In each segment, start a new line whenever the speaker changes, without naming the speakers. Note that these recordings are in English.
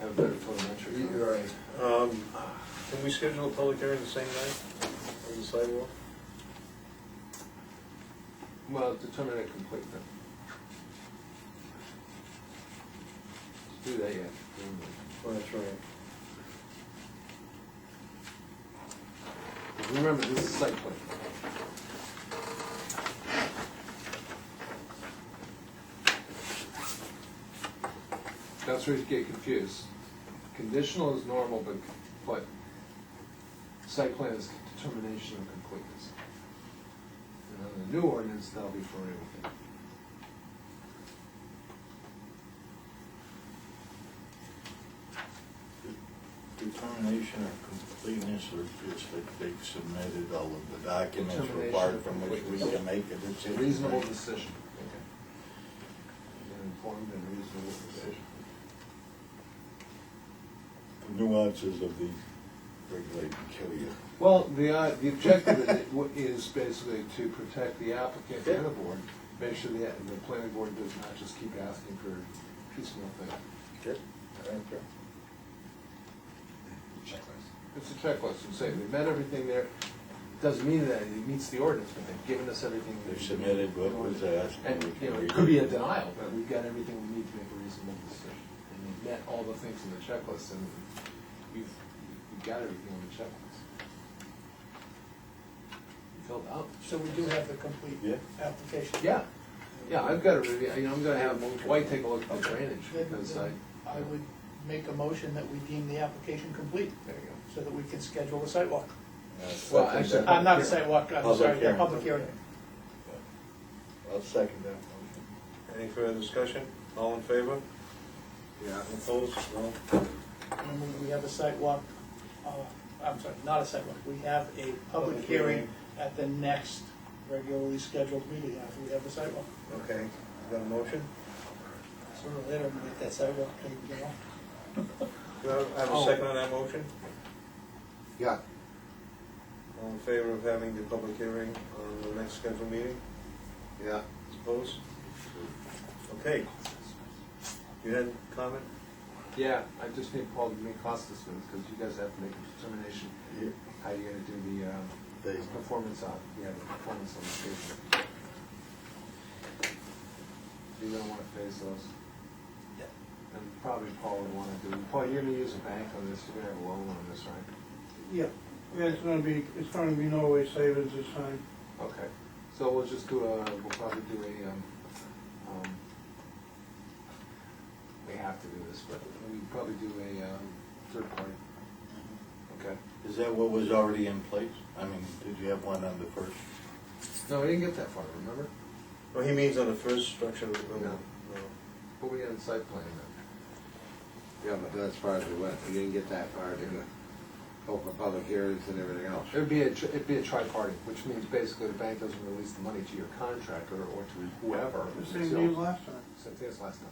Um, Can we schedule a public hearing the same night on the sidewalk?
Well, determine it complete then. Let's Do that yet.
Oh, that's right.
Remember, this is site plan. That's where you get confused. Conditional is normal, but, but site plan is determination of completeness. And on the new ordinance, that'll be for everything.
Determination of completeness or just that they've submitted all of the documents
Determination
required
of
from which we
completeness.
can make a
It's a
decision.
reasonable decision. An informed and reasonable decision.
The Nuances of the regulation kill you.
Well, the, uh, the objective is- is basically to protect the applicant and the board, make sure the, the planning board does not just keep asking for piecemeal things.
Okay.
It's a checklist, and say, we met everything there, doesn't mean that it meets the ordinance, but they've given us everything. we
They
need.
submitted what was uh, asked.
And, you know, it could be a denial, but we've got everything we need to make a reasonable decision. And we've met all the things in the checklist, and we've, we've got everything on the checklist. Filled out.
So we do have the complete
Yeah.
application?
Yeah, yeah, I've got to review, you know, I'm gonna have White take a look at the drainage,
Then-
because I,
I would make a motion that we deem the application complete,
there you
so that we can schedule a sidewalk.
Well, actually,
I'm not a
Public
sidewalk, I'm
Public
sorry, a
hearing.
public hearing.
I'll second that motion.
Any further discussion? All in favor?
Yeah.
Opposed? No?
And we- we have a sidewalk, uh, I'm sorry, not a sidewalk, we have a public
Public hearing.
hearing at the next regularly scheduled meeting after we have the sidewalk.
Okay, you got a motion?
Sooner or later, I'm gonna get that sidewalk cleaned, you know?
Do I have a
Oh.
second on that motion?
Yeah,
All in favor of having the public hearing on the next scheduled meeting?
yeah.
Opposed? Okay. You had a comment?
Yeah, I just need Paul to make cost estimates, because you guys have to make a determination,
Yeah.
how you're gonna do the, um,
They-
performance on, yeah, the performance on the station. You're gonna wanna phase those.
Yeah.
And probably Paul would wanna do, Paul, you're gonna use a bank on this, you're gonna have a loan on this, right?
Yeah, yeah, it's gonna be, it's gonna be Norway savings this time.
Okay, so we'll just do a, we'll probably do a, um, um, we have to do this, but we probably do a, um, third party. Okay.
Is that what was already in place? I mean, did you have one on the first?
No, we didn't get that far, remember?
Well, he means on the first structure. no,
No.
no.
But we had a site plan then.
Yeah, but that's far as we went, we didn't get that far to open public hearings and everything else.
It'd be a, tr- it'd be a tri-party, which means basically the bank doesn't release the money to your contractor or to whoever.
The same
until-
deal last time.
Same thing as last time,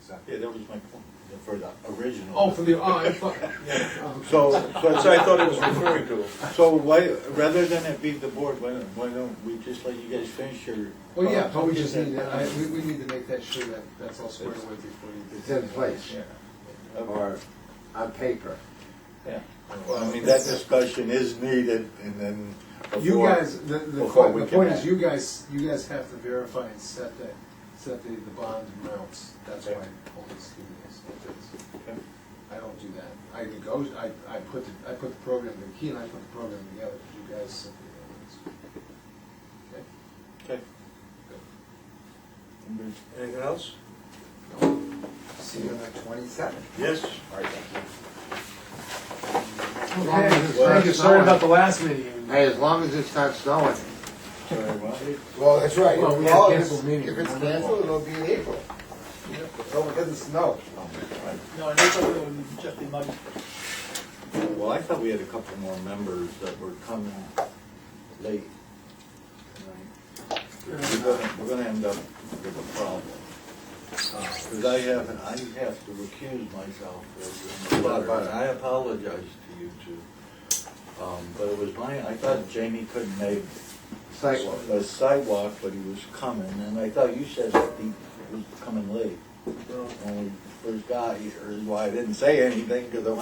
exactly.
Yeah, that was my point, for the uh, original.
Oh, for the, oh, I thought, yeah. um,
So,
That's what I thought it was referring to.
So why, rather than it be the board, why don't, why don't we just let you guys finish your?
Well, yeah, but we just need, to- I, we, we need to make that sure that that's all squared away before you.
It's in place,
Yeah.
or on paper.
Yeah. Well, I mean, that discussion is needed and then.
You
before-
guys, the, the,
before we
the
can
point
act.
is, you guys, you guys have to verify and set the, set the, the bond amounts, that's why I hold this to this.
Okay.
I don't do that, I nego, I, I put, the- I put the program, Key and I put the program together, you guys set the
Okay.
Anything else?
elements.
See you on the twenty-seventh.
Yes.
Thank you, sorry about the last meeting.
Hey, as long as it's not snowing.
Sorry, what?
Well, that's right.
Well, we had
Well,
canceled meetings.
If it's canceled, it'll be in April. So it doesn't snow.
Um,
No, I know it would just be muddy.
Well, I thought we had a couple more members that were coming late. tonight. We're gonna, we're gonna end up with a problem. Because I have, I have to recuse myself as a butter, and I apologize to you two. Um, But it was my, I thought Jamie couldn't make
Sidewalk.
the sidewalk, but he was coming, and I thought you said that he was coming late. When we first got here, is why I didn't say anything, because I